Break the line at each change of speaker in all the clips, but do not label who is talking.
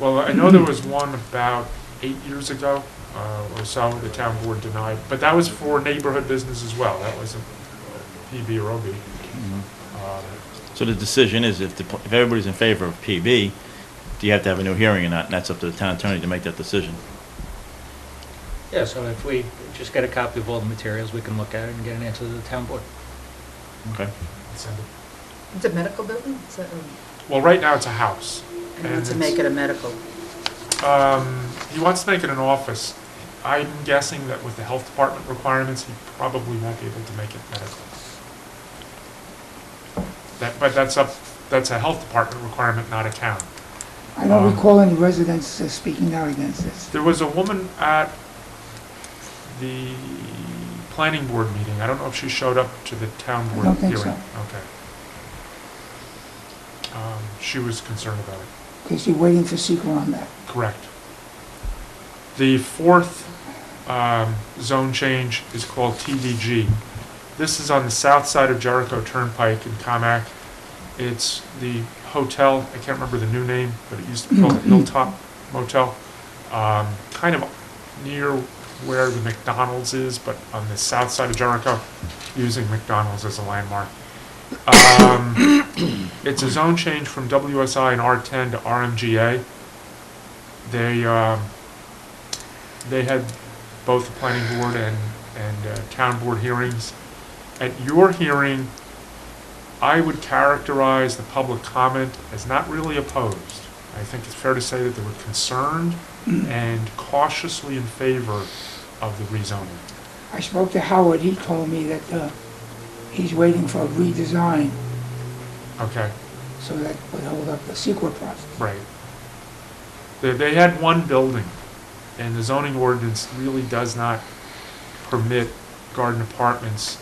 Well, I know there was one about eight years ago uh, or so, the town board denied, but that was for neighborhood business as well. That wasn't PB or OB. Um,
Mm-hmm. So the decision is if, the pl- if everybody's in favor of PB, do you have to have a new hearing or not? And that's up to the town attorney to make that decision.
Yeah, so if we just get a copy of all the materials, we can look at it and get an answer to the town board.
Okay?
it's in-
It's a medical building? Is that- um,
Well, right now it's a house.
I want to
And
make it a medical.
Um, He wants to make it an office. I'm guessing that with the health department requirements, he probably won't be able to make it medical. That, but that's up, that's a health department requirement, not a town.
I
Uh-huh.
don't recall any residents uh, speaking out against this.
There was a woman at the planning board meeting. I don't know if she showed up to the town
I
board
don't
hearing.
think so.
Okay. Um, she was concerned about it.
Because you're waiting for sequel on that.
Correct. The fourth um, zone change is called TDG. This is on the south side of Jericho Turnpike in Comac. It's the hotel, I can't remember the new name, but it used to be called the Hilltop Motel. um, Kind of near where the McDonald's is, but on the south side of Jericho, using McDonald's as a landmark. Um, It's a zone change from WSI and R10 to RMGA they um, they had both the planning board and and uh, town board hearings. At your hearing, I would characterize the public comment as not really opposed. I think it's fair to say that they were concerned and cautiously in favor of the rezoning.
I spoke to Howard, he told me that uh, he's waiting for a redesign,
Okay,
so that would hold up the sequel process.
right. They, they had one building, and the zoning ordinance really does not permit garden apartments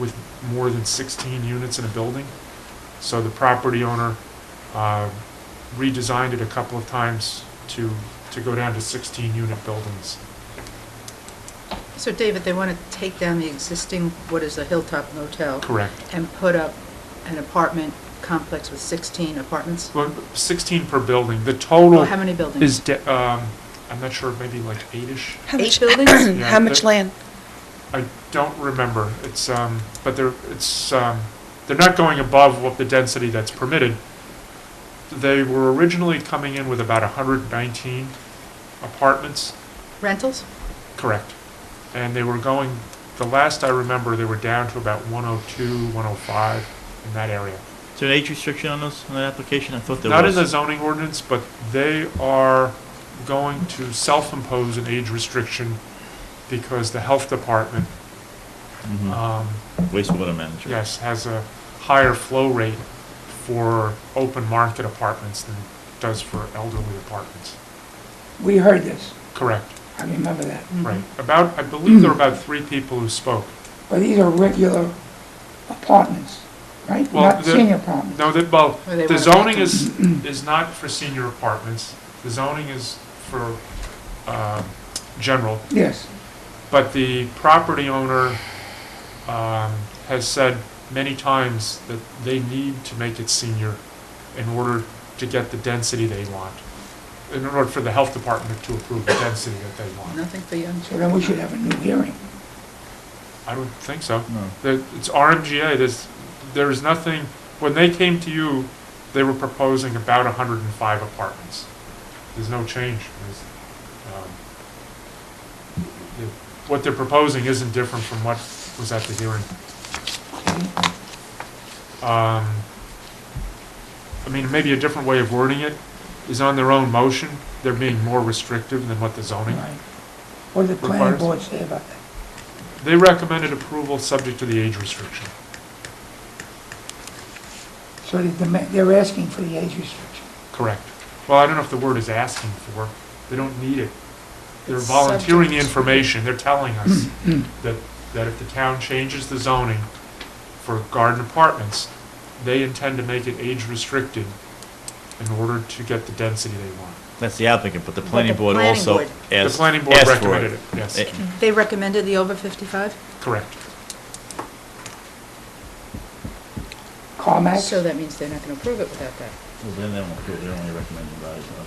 with more than 16 units in a building. So the property owner uh, redesigned it a couple of times to, to go down to 16-unit buildings.
So David, they want to take down the existing, what is a Hilltop Motel,
Correct.
and put up an apartment complex with 16 apartments?
Well, 16 per building. The
Or
total
how many buildings?
is, de- um, I'm not sure, maybe like eight-ish?
How
Eight
much,
buildings?
Yeah,
how much
that-
land?
I don't remember. It's, um, but they're, it's, um, they're not going above what the density that's permitted. They were originally coming in with about hundred and nineteen apartments,
Rentals?
correct? And they were going, the last I remember, they were down to about 102, 105 in that area.
Is there an age restriction on those, on that application? I thought there was.
Not in the zoning ordinance, but they are going to self-impose an age restriction because the health department,
Mhm.
um,
Wastewater manager.
yes, has a higher flow rate for open market apartments than it does for elderly apartments.
We heard this,
Correct,
I remember that.
Mm-hmm.
right. About, I believe there were about three people who spoke.
But these are regular apartments, right?
Well,
Not
the-
senior apartments.
No, that, well,
Or they
the
want
zoning
to-
is, is not for senior apartments. The zoning is for, um, general.
Yes,
But the property owner um, has said many times that they need to make it senior in order to get the density they want, in order for the health department to approve the density that they want.
Nothing for young
so then we should have a new hearing.
I don't think so.
No.
The- It's RMGA, there's, there is nothing, when they came to you, they were proposing about 105 apartments. There's no change. There's, um, the- What they're proposing isn't different from what was at the hearing. um, I mean, maybe a different way of wording it, is on their own motion, they're being more restrictive than what the zoning.
Right. What did the planning
Requires-
board say about that?
They recommended approval subject to the age restriction.
So they demand- they're asking for the age restriction.
Correct. Well, I don't know if the word is asking for, they don't need it. They're
It's
volunteering the
subject.
information, they're telling us that, that if the town changes the zoning for garden apartments, they intend to make it age restricted in order to get the density they want.
That's the applicant, but the
But
planning
the
board
planning
also
board-
asked, asked for
The
it.
planning board recommended it, yes,
Eh,
They recommended the over 55?
correct.
Carmax?
So that means they're not going to approve it without that.
Well, then they won't do it, they're only recommending by,